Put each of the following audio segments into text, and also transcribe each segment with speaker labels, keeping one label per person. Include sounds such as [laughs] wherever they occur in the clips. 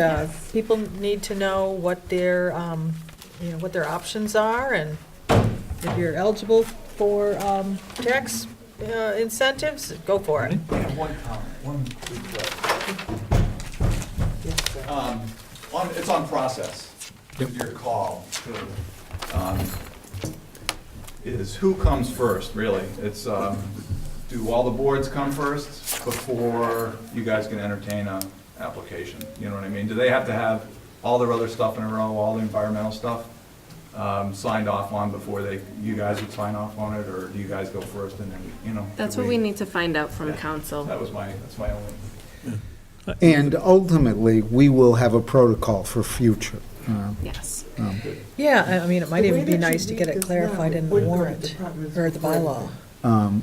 Speaker 1: Uh, People need to know what their, um, you know, what their options are, and if you're eligible for um, tax uh, incentives, go for it.
Speaker 2: I have one comment, one quick question. Um, on, it's on process, your call, to, um, is who comes first, really? It's, um, do all the boards come first before you guys can entertain a application? You know what I mean? Do they have to have all their other stuff in a row, all the environmental stuff, um, signed off on before they, you guys would sign off on it, or do you guys go first and then, you know?
Speaker 3: That's
Speaker 2: do
Speaker 3: what we need to find out from
Speaker 2: Yeah.
Speaker 3: council.
Speaker 2: That was my, that's my only.
Speaker 4: And ultimately, we will have a protocol for future. uh,
Speaker 3: Yes.
Speaker 1: Yeah, I- I mean, it might
Speaker 5: The
Speaker 1: even
Speaker 5: way
Speaker 1: be
Speaker 5: that you
Speaker 1: nice to
Speaker 5: read
Speaker 1: get it
Speaker 5: this
Speaker 1: clarified
Speaker 5: now,
Speaker 1: in the
Speaker 5: would the
Speaker 1: warrant,
Speaker 5: department's
Speaker 1: or the bylaw.
Speaker 5: requirement.
Speaker 4: um,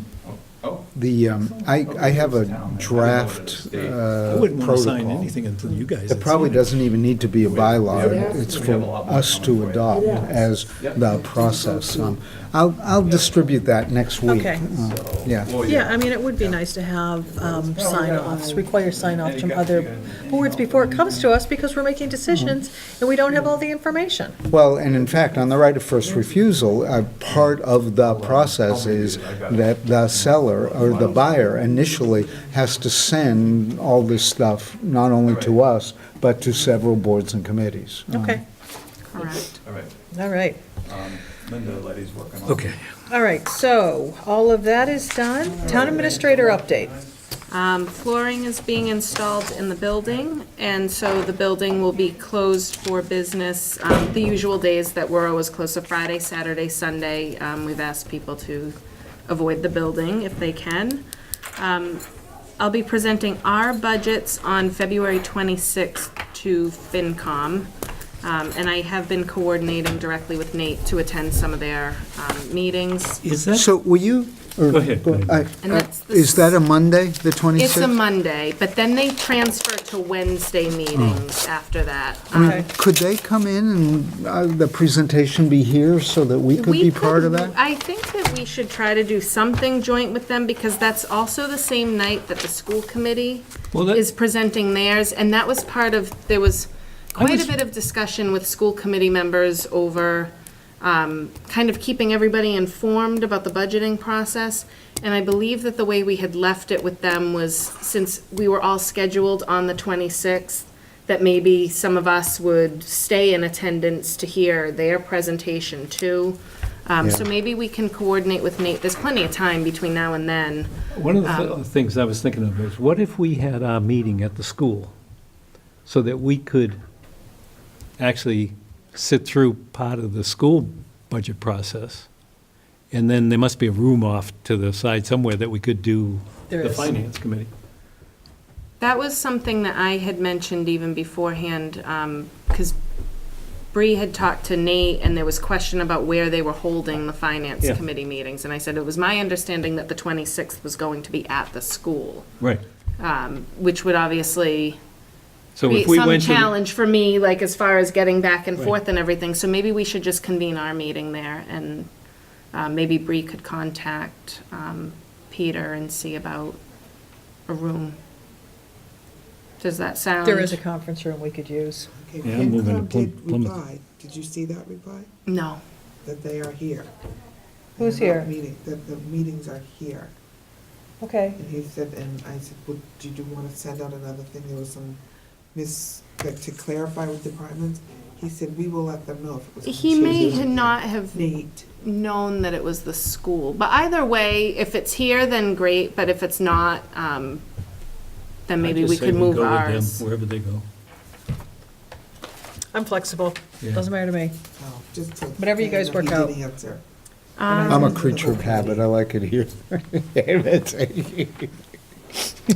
Speaker 2: Oh,
Speaker 4: The, um, I, I have a draft
Speaker 2: I
Speaker 6: I
Speaker 4: uh,
Speaker 6: wouldn't want to sign
Speaker 4: protocol.
Speaker 6: anything until you guys.
Speaker 4: It
Speaker 6: had
Speaker 4: probably
Speaker 6: seen
Speaker 4: doesn't even need to be a
Speaker 2: We-
Speaker 4: bylaw.
Speaker 2: we
Speaker 5: have-
Speaker 4: It's
Speaker 2: we
Speaker 4: for
Speaker 2: have a lot more
Speaker 4: us
Speaker 2: coming for
Speaker 4: to
Speaker 2: you.
Speaker 4: adopt
Speaker 5: Yeah.
Speaker 4: as
Speaker 2: Yep.
Speaker 4: the process. Um, I'll, I'll distribute that next week.
Speaker 1: Okay.
Speaker 4: Uh, Yeah.
Speaker 2: Well,
Speaker 1: Yeah, I mean, it would be nice to have um, sign-offs, require sign-offs from other boards before it comes to us, because we're making decisions, and we don't have all the information.
Speaker 4: Well, and in fact, on the right of first refusal, uh, part of the process is that the seller or the buyer initially has to send all this stuff, not only to us, but to several boards and committees.
Speaker 1: Okay,
Speaker 3: Correct.
Speaker 2: All right,
Speaker 1: all right.
Speaker 2: um, Linda, Letty's working on it.
Speaker 6: Okay.
Speaker 1: All right, so all of that is done. Town administrator update.
Speaker 3: Um, flooring is being installed in the building, and so the building will be closed for business, um, the usual days that we're always closed, so Friday, Saturday, Sunday. Um, we've asked people to avoid the building if they can. Um, I'll be presenting our budgets on February 26th to FinCom. Um, and I have been coordinating directly with Nate to attend some of their, um, meetings.
Speaker 6: Is that,
Speaker 4: So will you? or-
Speaker 6: Go ahead.
Speaker 4: I-
Speaker 3: And that's the-
Speaker 4: Is that a Monday, the 26th?
Speaker 3: It's a Monday, but then they transfer to Wednesday
Speaker 4: Oh.
Speaker 3: meetings after that. Um,
Speaker 4: I mean,
Speaker 1: Okay.
Speaker 4: Could they come in and uh, the presentation be here so that we could
Speaker 3: We
Speaker 4: be part of that?
Speaker 3: I think that we should try to do something joint with them, because that's also the same night that the school committee
Speaker 6: Well, that-
Speaker 3: is presenting theirs, and that was part of, there was
Speaker 6: I
Speaker 3: quite a
Speaker 6: was-
Speaker 3: bit of discussion with school committee members over um, kind of keeping everybody informed about the budgeting process. And I believe that the way we had left it with them was, since we were all scheduled on the 26th, that maybe some of us would stay in attendance to hear their presentation too. Um, So
Speaker 4: Yeah.
Speaker 3: maybe we can coordinate with Nate. There's plenty of time between now and then.
Speaker 6: one of the
Speaker 3: Uh,
Speaker 6: th- things I was thinking of is, what if we had our meeting at the school? So that we could actually sit through part of the school budget process? And then there must be a room off to the side somewhere that we could do
Speaker 1: There
Speaker 6: the
Speaker 1: is.
Speaker 6: finance committee.
Speaker 3: That was something that I had mentioned even beforehand, because Bree had talked to Nate, and there was question about where they were holding the finance
Speaker 6: Yeah.
Speaker 3: committee meetings. And I said, it was my understanding that the 26th was going to be at the school,
Speaker 6: Right.
Speaker 3: um, which would obviously
Speaker 6: So
Speaker 3: create
Speaker 6: if we
Speaker 3: some
Speaker 6: went to. the-
Speaker 3: challenge for me, like, as far as getting back and
Speaker 6: Right.
Speaker 3: forth and everything. So maybe we should just convene our meeting there, and uh, maybe Bree could contact um, Peter and see about a room. Does that sound?
Speaker 1: There is a conference room we could use.
Speaker 5: Okay,
Speaker 6: Yeah, I'm moving to
Speaker 5: FinCom did
Speaker 6: Plym- Plymouth.
Speaker 5: reply. Did you see that reply?
Speaker 3: No.
Speaker 5: That they are here.
Speaker 1: Who's
Speaker 5: They're not
Speaker 1: here?
Speaker 5: Meeting, that the meetings are here.
Speaker 1: Okay.
Speaker 5: And he said, and I said, well, did you want to send out another thing? There was some mis, that to clarify with departments. He said, we will let them know if it was. on
Speaker 3: He may
Speaker 5: Tuesday."
Speaker 3: ha- not have
Speaker 5: Nate,
Speaker 3: known that it was the school, but either way, if it's here, then great, but if it's not, um, then maybe
Speaker 6: I'd
Speaker 3: we
Speaker 6: just say
Speaker 3: could move
Speaker 6: go with them
Speaker 3: ours.
Speaker 6: Wherever they go.
Speaker 1: I'm flexible.
Speaker 6: Yeah.
Speaker 1: Doesn't matter to me.
Speaker 5: oh, just to.
Speaker 1: Whatever you guys
Speaker 5: He
Speaker 1: work out.
Speaker 5: didn't answer.
Speaker 3: Um,
Speaker 4: I'm a creature of habit, I like it here. [laughs]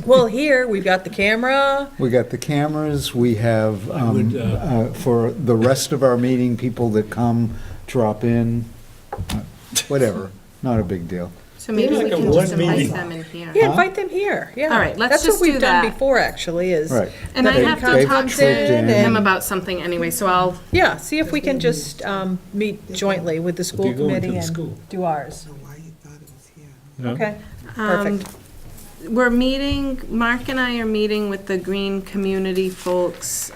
Speaker 1: Well, here, we've got the camera.
Speaker 4: We got the cameras, we have,
Speaker 6: I would,
Speaker 4: um,
Speaker 6: uh,
Speaker 4: uh, for the rest of our meeting, people that come, drop in, uh, whatever, not a big deal.
Speaker 3: So maybe we
Speaker 6: Like a
Speaker 3: can just
Speaker 6: one
Speaker 3: invite
Speaker 6: meeting.
Speaker 3: them in here.
Speaker 1: Yeah, invite them here, yeah.
Speaker 3: All right, let's
Speaker 1: That's
Speaker 3: just
Speaker 1: what we've
Speaker 3: do
Speaker 1: done
Speaker 3: that.
Speaker 1: before, actually, is.
Speaker 4: Right.
Speaker 3: And I
Speaker 1: They-
Speaker 3: have
Speaker 1: they
Speaker 3: to talk
Speaker 1: trooped
Speaker 3: to
Speaker 1: in
Speaker 3: him
Speaker 1: and-
Speaker 3: about something anyway, so I'll,
Speaker 1: Yeah, see if we can just um, meet jointly with the school
Speaker 6: They're going to
Speaker 1: committee
Speaker 6: the
Speaker 1: and
Speaker 6: school.
Speaker 1: do ours.
Speaker 5: I don't know why he thought it was here.
Speaker 6: you know?
Speaker 1: Okay,
Speaker 3: um,
Speaker 1: perfect.
Speaker 3: we're meeting, Mark and I are meeting with the Green Community folks,